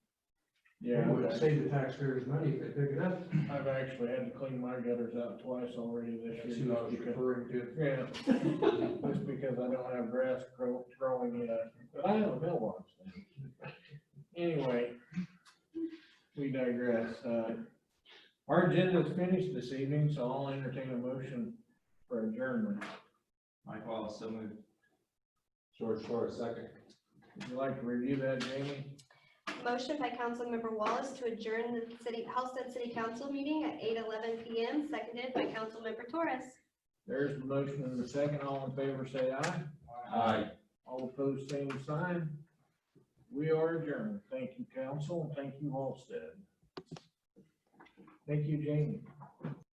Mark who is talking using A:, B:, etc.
A: It
B: Yeah,
A: would save the taxpayers money if they pick it up.
B: I've actually had to clean my gutters out twice already this
A: That's
B: year.
A: who I was
B: just because-
A: referring to.
B: Yeah, just because I don't have grass grow, growing yet, but I have a mailbox now. Anyway, we digress, uh, our agenda's finished this evening, so I'll entertain a motion for adjournment.
C: Mike Wallace, so moved.
A: George Flores, second.
B: Would you like to review that, Jamie?
D: Motion by Councilmember Wallace to adjourn the city, Halsted City Council meeting at eight eleven PM, seconded by Councilmember Torres.
B: There's the motion and the second, all in favor, say aye.
C: Aye.
B: All opposed, same sign. We are adjourned. Thank you, council, and thank you, Halsted. Thank you, Jamie.